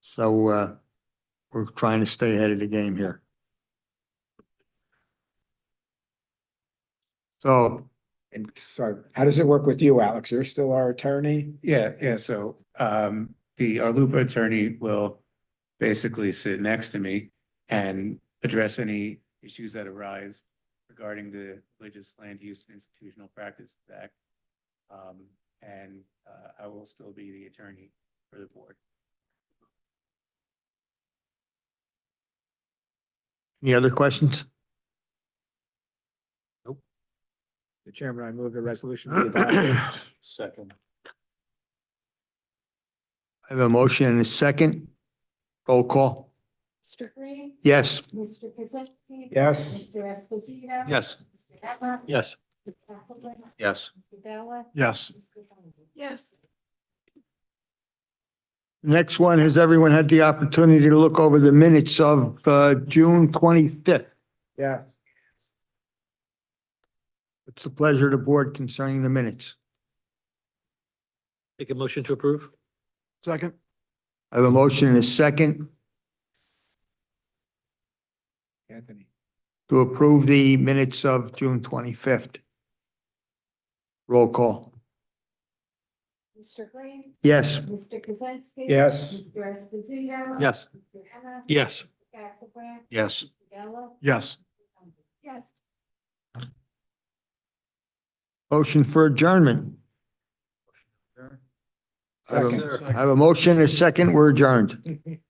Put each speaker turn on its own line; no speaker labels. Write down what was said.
So uh, we're trying to stay ahead of the game here. So
And sorry, how does it work with you, Alex? You're still our attorney?
Yeah, yeah, so um the Arlupa attorney will basically sit next to me and address any issues that arise regarding the Religious Land Use and Institutional Practice Act. Um, and uh I will still be the attorney for the board.
any other questions?
The chairman, I move the resolution. be adopted.
Second.
I have a motion and a second. Roll call.
Mr. Green?
Yes.
Mr. Kaczynski?
Yes,
Mr. Esposito?
Yes.
Mr. Emma?
Yes.
Mr. Castleton?
Yes.
Mr. Bella?
Yes.
Mr. Donovan?
Yes.
Next one, has everyone had the opportunity to look over the minutes of uh, June twenty-fifth?
yeah.
It's the pleasure of the board concerning the minutes.
Make a motion to approve?
Second. I have a motion and a second
Anthony.
to approve the minutes of June twenty-fifth. Roll call.
Mr. Green?
Yes.
Mr. Kaczynski?
Yes.
Mr. Esposito?
Yes.
Mr. Emma?
Yes.
Mr. Castleton?
Yes.
Mr. Bella?
Yes.
Mr. Donovan?
Yes.
Motion for adjournment. I have a- I have a motion and a second. We're adjourned.